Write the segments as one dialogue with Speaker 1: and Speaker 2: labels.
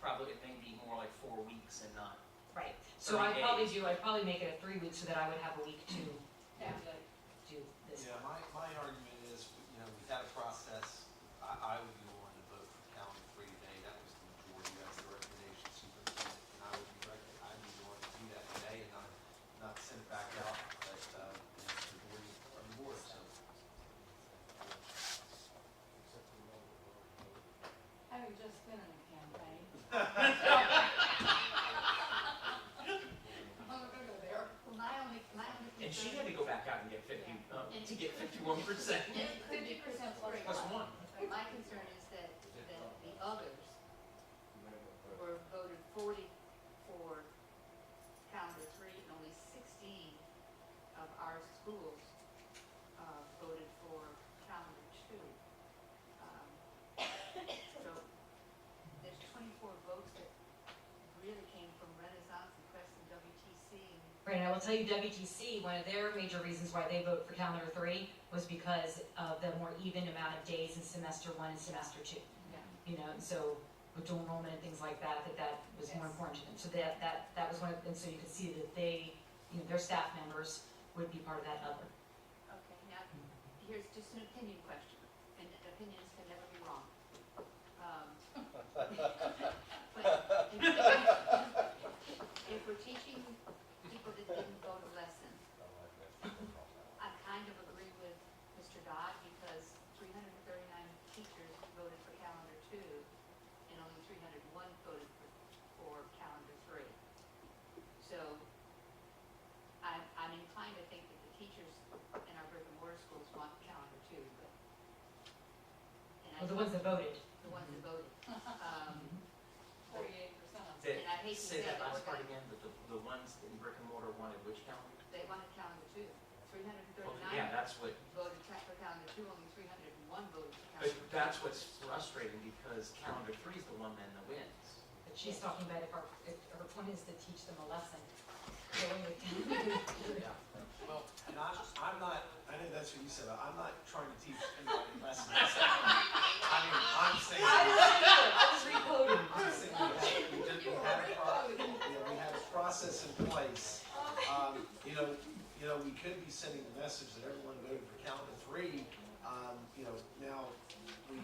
Speaker 1: probably, it may be more like four weeks and not,
Speaker 2: Right, so I
Speaker 1: Three
Speaker 2: probably
Speaker 1: days.
Speaker 2: do, I'd probably make it a three week so that I would have a week to
Speaker 3: Yeah.
Speaker 2: do this.
Speaker 4: Yeah, my, my argument is, you know, we've had a process, I, I would be the one to vote for the calendar free today, that was the majority, that's the recommendation superintendent, and I would be rec, I'd be the one to do that today and not, not send it back out, but, uh, you know, the board, or the board, so.
Speaker 3: Having just been in a campaign. I'm not gonna go there. Well, my only, my only concern.
Speaker 1: and she had to go back out and get fifty, uh, to get fifty-one percent.
Speaker 3: Fifty percent plus
Speaker 1: Plus one.
Speaker 3: But My concern is that, that the others were voted forty for calendar three, and only sixteen of our schools, uh, voted for calendar two. Um, So, there's twenty-four votes that really came from Renaissance and Preston WTC.
Speaker 2: Right, and I will tell you WTC, one of their major reasons why they vote for calendar three was because of the more even amount of days in semester one and semester two.
Speaker 3: Yeah.
Speaker 2: You know, and so with dual enrollment and things like that, that that was more
Speaker 3: Yes.
Speaker 2: important to them. So that, that, that was one of, and so you could see that they, you know, their staff members would be part of that other.
Speaker 3: Okay, now, here's just an opinion question, and opinions can never be wrong. Um, but If we're teaching people that didn't go to lesson, I kind of agree with Mr. Dodd because three hundred and thirty-nine teachers voted for calendar two, and only three hundred and one voted for, for calendar three. So I'm, I'm inclined to think that the teachers in our brick and mortar schools want calendar two, but. and I
Speaker 2: Well, the ones that voted.
Speaker 3: The ones that voted. Um,
Speaker 5: Forty-eight percent.
Speaker 1: That-
Speaker 3: And I hate to
Speaker 1: Say
Speaker 3: say
Speaker 1: that
Speaker 3: it,
Speaker 1: last
Speaker 3: but-
Speaker 1: part again, but the, the ones in brick and mortar wanted which calendar?
Speaker 3: They wanted calendar two. Three hundred and
Speaker 1: Well, yeah,
Speaker 3: thirty-nine
Speaker 1: that's what,
Speaker 3: voted ca- for calendar two, only three hundred and one voted for
Speaker 1: but
Speaker 3: calendar two.
Speaker 1: that's what's frustrating because calendar three is the one then that wins.
Speaker 2: But she's talking about if our, if our point is to teach them a lesson. So when we-
Speaker 1: Yeah.
Speaker 4: Well, and I'm, I'm not, I know that's what you said, but I'm not trying to teach anybody lessons. I mean, I'm saying.
Speaker 2: I was recoding.
Speaker 4: I'm saying we had- we did- we had a pro- you know, we had a process in place. Um, You know, you know, we could be sending the message that everyone voted for calendar three. Um, You know, now, we,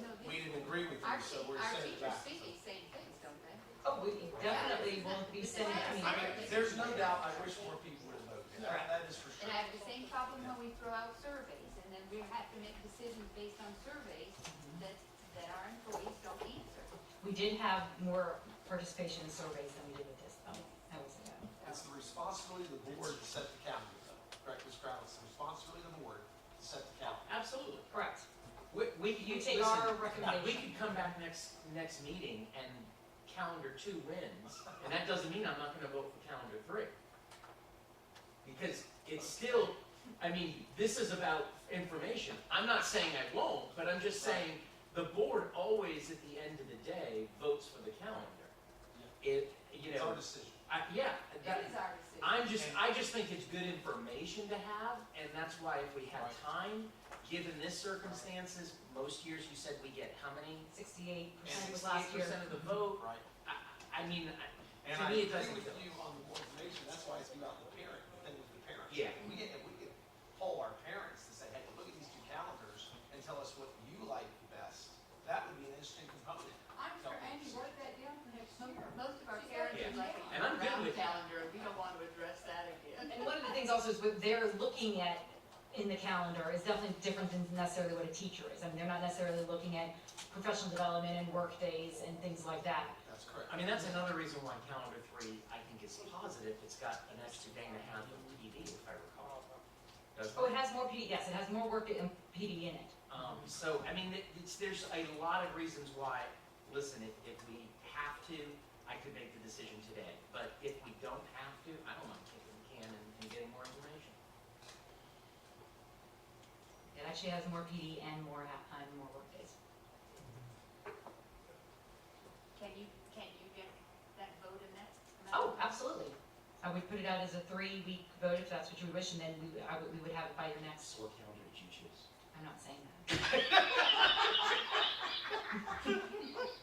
Speaker 3: No,
Speaker 4: we
Speaker 3: these-
Speaker 4: didn't agree with you,
Speaker 3: Our
Speaker 4: so
Speaker 3: te-
Speaker 4: we're
Speaker 3: our
Speaker 4: sending it
Speaker 3: teachers
Speaker 4: back.
Speaker 3: see these same things, don't they?
Speaker 2: Oh, we definitely won't be sending, I mean,
Speaker 4: I mean, there's no doubt, I wish more people would have voted. That that is for
Speaker 3: And
Speaker 4: sure.
Speaker 3: I have the same problem when we throw out surveys, and then we have to make decisions based on surveys that, that our employees don't answer.
Speaker 2: we did have more participation in surveys than we did with this, though. That was a go.
Speaker 4: It's the responsibility of the board to set the calendar, though. correct, Ms. Crowell? It's the responsibility of the board to set the calendar.
Speaker 1: Absolutely.
Speaker 2: Correct.
Speaker 1: We, we, you
Speaker 2: You take our
Speaker 1: we
Speaker 2: recommendation.
Speaker 1: could come back next, next meeting and calendar two wins, and that doesn't mean I'm not gonna vote for calendar three. Because it's still, I mean, this is about information, I'm not saying I won't, but I'm just saying, the board always, at the end of the day, votes for the calendar. It, you
Speaker 4: It's our
Speaker 1: know,
Speaker 4: decision.
Speaker 1: I, yeah, that,
Speaker 3: It is our decision.
Speaker 1: I'm just, I just think it's good information to have, and that's why if we have time, given this circumstances, most years you said we get how many?
Speaker 2: Sixty-eight percent
Speaker 1: Sixty-eight
Speaker 2: was last year.
Speaker 1: percent of the vote,
Speaker 4: Right.
Speaker 1: I, I- I mean, I-
Speaker 4: And
Speaker 1: To
Speaker 4: I
Speaker 1: me, it
Speaker 4: agree
Speaker 1: doesn't
Speaker 4: with
Speaker 1: feel-
Speaker 4: you on the more information, that's why it's about the parent, the thing with the parents.
Speaker 1: Yeah.
Speaker 4: If We get, if we could poll our parents to say, hey, look at these two calendars and tell us what you like best, that would be an interesting component.
Speaker 5: I'm sure Andy worked that down for next year.
Speaker 3: Most of our parents are like,
Speaker 1: And I'm good
Speaker 3: round
Speaker 1: with-
Speaker 3: calendar, and we don't want to address that again.
Speaker 2: And one of the things also is what they're looking at in the calendar is definitely different than necessarily what a teacher is. I mean, they're not necessarily looking at professional development and work days and things like that.
Speaker 4: That's correct.
Speaker 1: I mean, that's another reason why calendar three, I think is positive, it's got an extra day and a half of PD, if I recall. Doesn't
Speaker 2: Oh,
Speaker 1: it?
Speaker 2: it has more PD, yes, it has more work in PD in it.
Speaker 1: Um, so, I mean, it- it's, there's a lot of reasons why, listen, if, if we have to, I could make the decision today. But if we don't have to, I don't mind kicking the can and, and getting more information.
Speaker 2: It actually has more PD and more, ha- and more work days.
Speaker 3: Can you, can you get that vote in that?
Speaker 2: Oh, absolutely. I would put it out as a three-week vote if that's what you wish, and then we, I would, we would have it by your next,
Speaker 1: What calendar did you choose?
Speaker 2: I'm not saying that.